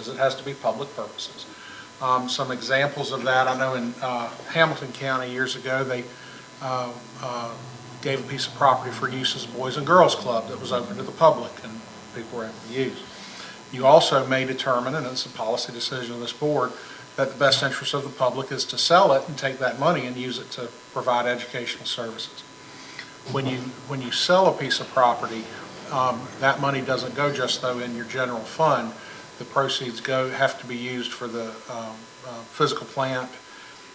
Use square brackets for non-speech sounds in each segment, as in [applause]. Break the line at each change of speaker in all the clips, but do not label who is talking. because it has to be public purposes. Um, Some examples of that, I know in uh, Hamilton County years ago, they uh, uh, gave a piece of property for use as a Boys and Girls Club that was open to the public, and people were able to use. You also may determine, and it's a policy decision of this board, that the best interest of the public is to sell it and take that money and use it to provide educational services. When you, when you sell a piece of property, um, that money doesn't go just though in your general fund. The proceeds go, have to be used for the um, uh, physical plant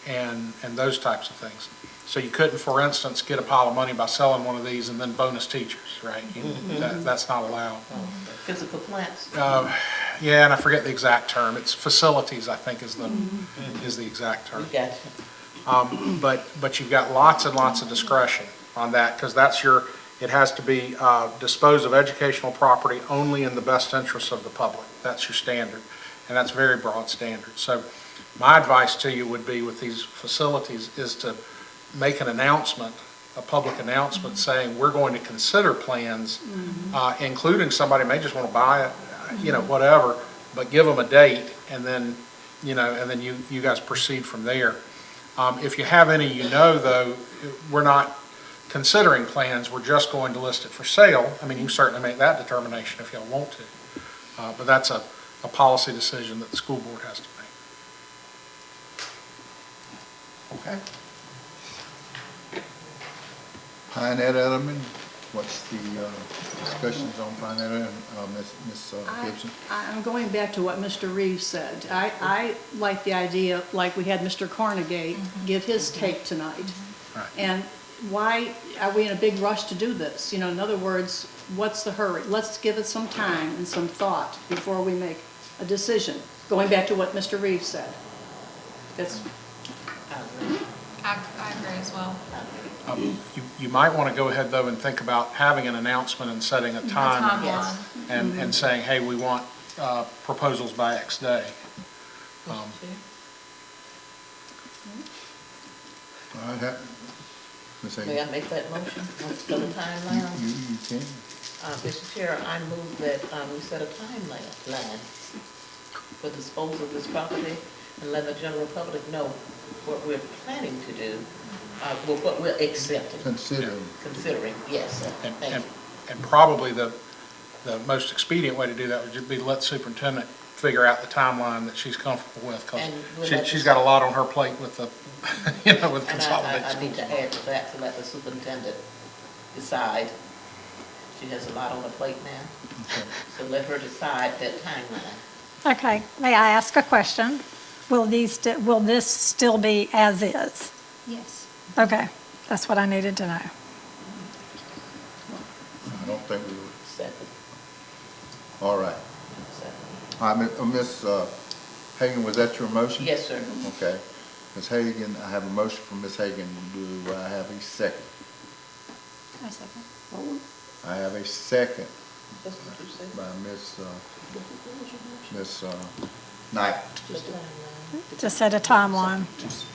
and, and those types of things. So you couldn't, for instance, get a pile of money by selling one of these and then bonus teachers, right? You- that- That's not allowed.
physical plants.
Uh, Yeah, and I forget the exact term. It's facilities, I think, is the, is the exact term.
You got it.
But, but you've got lots and lots of discretion on that, because that's your, it has to be uh, dispose of educational property only in the best interest of the public. That's your standard, and that's very broad standard. So my advice to you would be with these facilities is to make an announcement, a public announcement saying, we're going to consider plans, uh, including somebody may just want to buy it, you know, whatever, but give them a date, and then, you know, and then you, you guys proceed from there. Um, If you have any you know, though, we're not considering plans, we're just going to list it for sale. I mean, you can certainly make that determination if y'all want to, Uh, but that's a, a policy decision that the school board has to make.
Okay. Pinette Edelman, what's the uh, discussions on Pinette Edelman, Uh, Ms.
I-
Gibson?
I'm going back to what Mr. Reeves said. I, I like the idea, like we had Mr. Carnegie give his take tonight.
Right.
And why are we in a big rush to do this? You know, in other words, what's the hurry? Let's give it some time and some thought before we make a decision, going back to what Mr. Reeves said. That's,
I, I agree as well.
Um, You, you might want to go ahead, though, and think about having an announcement and setting a time.
Timeline.
And, and saying, hey, we want uh, proposals by X day. Um,
All right, ha- Ms.
May
Hagan,
I make that motion? Let's set a
you,
timeline.
you you can.
Uh, Mr. Chair, I move that um, we set a timeline line for disposal of this property and let the general public know what we're planning to do, uh, well, what we're accepting,
consider.
considering, yes, sir.
And,
thank
and,
you.
and probably the, the most expedient way to do that would just be let superintendent figure out the timeline that she's comfortable with, because
And we'll
she,
let the-
she's got a lot on her plate with the, [laughs] you know, with
And I, I- I
consolidation.
need to add to that, to let the superintendent decide. She has a lot on her plate now,
Okay.
so let her decide that timeline.
Okay, may I ask a question? Will these, sti- will this still be as is?
Yes.
Okay, that's what I needed to know.
I don't think we would,
Second,
all right.
second.
I mean, uh, Ms. uh, Hagan, was that your motion?
Yes, sir.
Okay. Ms. Hagan, I have a motion from Ms. Hagan. Do I have a second?
I second.
I have a second
That's what you said.
by Ms., uh, Ms. uh, Knight.
Just a timeline.
Just set a timeline.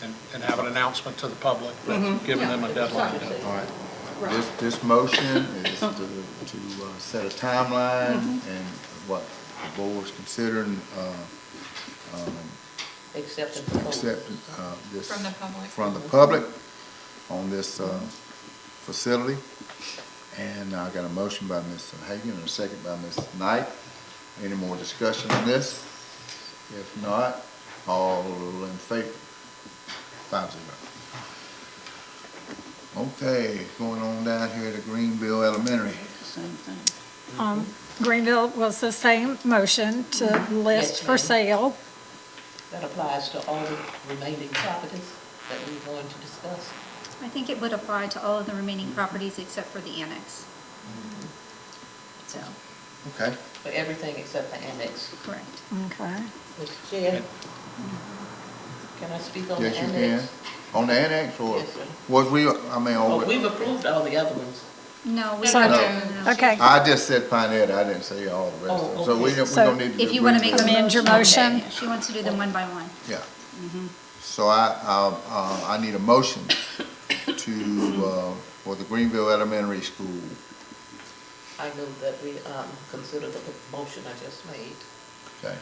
And, and have an announcement to the public, that's giving them a deadline.
Obviously.
All right, this, this motion is to, to uh, set a timeline and what the board's considering, uh,
Acceptance of vote.
accepting, uh, this.
From the public.
From the public on this, uh, facility. And I got a motion by Ms. Hagan and a second by Ms. Knight. Any more discussion on this? If not, all in favor? Five zero. Okay, going on down here to Greenville Elementary.
same thing.
Um, Greenville was the same motion to list for
ma'am.
sale.
That applies to all the remaining properties that we're going to discuss.
I think it would apply to all of the remaining properties except for the annex. So,
Okay.
For everything except the annex.
correct.
Okay.
Mr. Chair, can I speak on the
Yes, you
annex?
can. On the annex or
Yes, sir.
was we, I mean,
Oh,
over-
we've approved all the other ones.
No, we
So-
don't.
No.
no.
Okay,
I just said Pinetta, I didn't say all the rest of them. So we,
Oh,
don't-
okay.
we don't need to.
If you want to
agree
make
to
a
it.
Amend your
motion.
motion.
She wants to do them one by one.
Yeah. So I, I, uh, I need a motion to, uh, for the Greenville Elementary School.
I move that we um, consider the motion I just made.
Okay.